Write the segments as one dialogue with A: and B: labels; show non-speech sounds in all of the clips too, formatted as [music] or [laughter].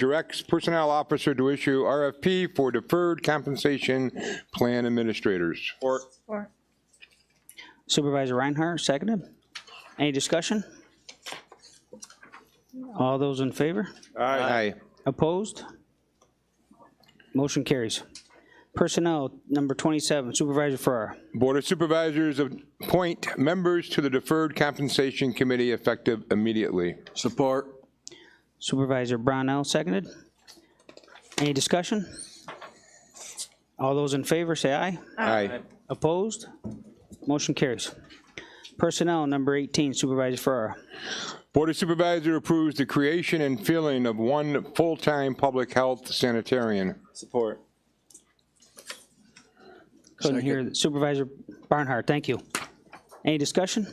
A: directs Personnel Officer to issue RFP for deferred compensation plan administrators.
B: Supervisor Reinhardt, seconded. Any discussion? All those in favor?
A: Aye.
B: Opposed? Motion carries. Personnel, number 27, Supervisor Farrar.
A: Board of Supervisors appoint members to the Deferred Compensation Committee effective immediately.
C: Support.
B: Supervisor Brownell, seconded. Any discussion? All those in favor, say aye.
A: Aye.
B: Opposed? Motion carries. Personnel, number 18, Supervisor Farrar.
A: Board of Supervisor approves the creation and filling of one full-time public health sanitarian.
C: Support.
B: Couldn't hear Supervisor Barnhart, thank you. Any discussion?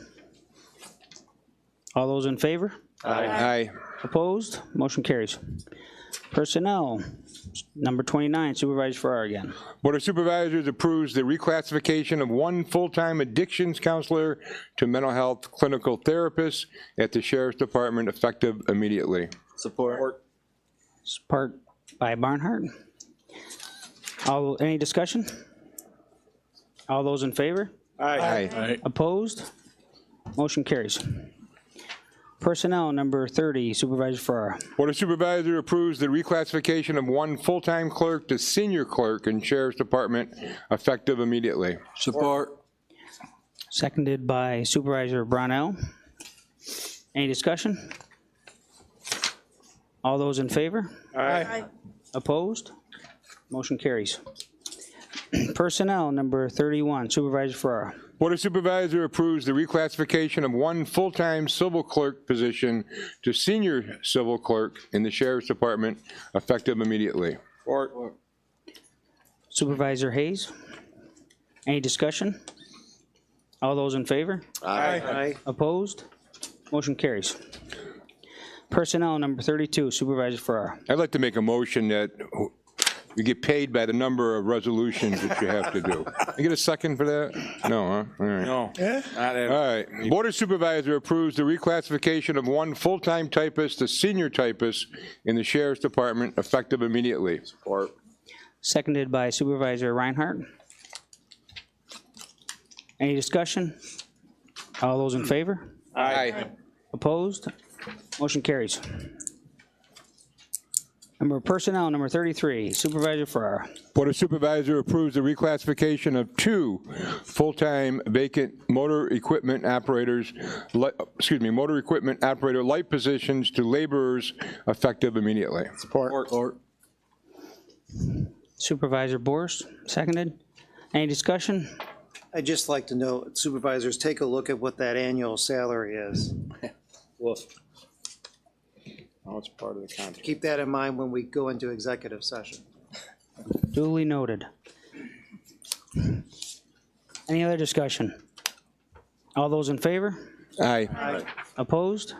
B: All those in favor?
A: Aye.
B: Opposed? Motion carries. Personnel, number 29, Supervisor Farrar again.
A: Board of Supervisors approves the reclassification of one full-time addictions counselor to mental health clinical therapist at the Sheriff's Department effective immediately.
C: Support.
B: Support by Barnhart. All, any discussion? All those in favor?
A: Aye.
C: Aye.
B: Opposed? Motion carries. Personnel, number 30, Supervisor Farrar.
A: Board of Supervisors approves the reclassification of one full-time clerk to senior clerk in Sheriff's Department effective immediately.
C: Support.
B: Seconded by Supervisor Brownell. Any discussion? All those in favor?
D: Aye.
B: Opposed? Motion carries. Personnel, number 31, Supervisor Farrar.
A: Board of Supervisor approves the reclassification of one full-time civil clerk position to senior civil clerk in the Sheriff's Department effective immediately.
C: Support.
B: Supervisor Hayes. Any discussion? All those in favor?
C: Aye.
B: Opposed? Motion carries. Personnel, number 32, Supervisor Farrar.
A: I'd like to make a motion that you get paid by the number of resolutions that you have to do. You get a second for that? No, huh? All right.
C: No.
A: All right. Board of Supervisor approves the reclassification of one full-time typist to senior typist in the Sheriff's Department effective immediately.
C: Support.
B: Seconded by Supervisor Reinhardt. Any discussion? All those in favor?
A: Aye.
B: Opposed? Motion carries. Number Personnel, number 33, Supervisor Farrar.
A: Board of Supervisor approves the reclassification of two full-time vacant motor equipment operators, li- excuse me, motor equipment operator light positions to laborers effective immediately.
C: Support.
B: Supervisor Boris, seconded. Any discussion?
E: I'd just like to know, supervisors, take a look at what that annual salary is.
C: Oh, it's part of the contract.
E: Keep that in mind when we go into executive session.
B: Duly noted. Any other discussion? All those in favor?
A: Aye.
B: Opposed?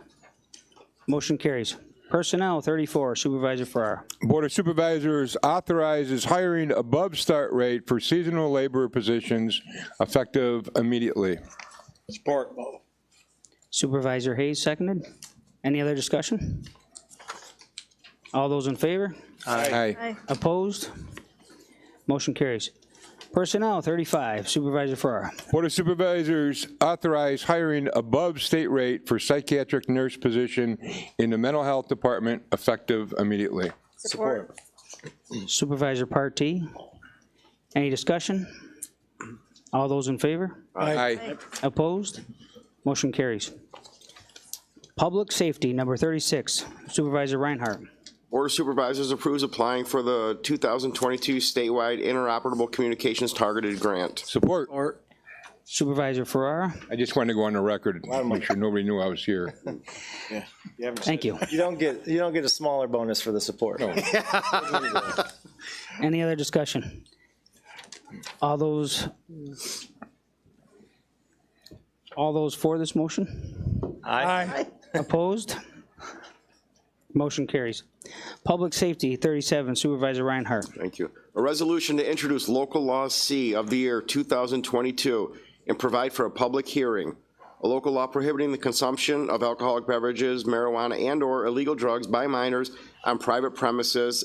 B: Motion carries. Personnel, 34, Supervisor Farrar.
A: Board of Supervisors authorizes hiring above start rate for seasonal labor positions effective immediately.
C: Support.
B: Supervisor Hayes, seconded. Any other discussion? All those in favor?
A: Aye.
B: Opposed? Motion carries. Personnel, 35, Supervisor Farrar.
A: Board of Supervisors authorize hiring above state rate for psychiatric nurse position in the Mental Health Department effective immediately.
D: Support.
B: Supervisor Partee. Any discussion? All those in favor?
A: Aye.
B: Opposed? Motion carries. Public Safety, number 36, Supervisor Reinhardt.
F: Board of Supervisors approves applying for the 2022 statewide interoperable communications targeted grant.
A: Support.
C: Support.
B: Supervisor Ferrara,
A: I just wanted to go on the record, make sure nobody knew I was here.
B: thank you.
G: You don't get, you don't get a smaller bonus for the support. [laughs]
B: Any other discussion? All those, all those for this motion?
G: Aye.
B: Opposed? Motion carries. Public Safety, 37, Supervisor Reinhardt.
F: Thank you. A resolution to introduce local law C of the year 2022 and provide for a public hearing. a local law prohibiting the consumption of alcoholic beverages, marijuana, and/or illegal drugs by minors on private premises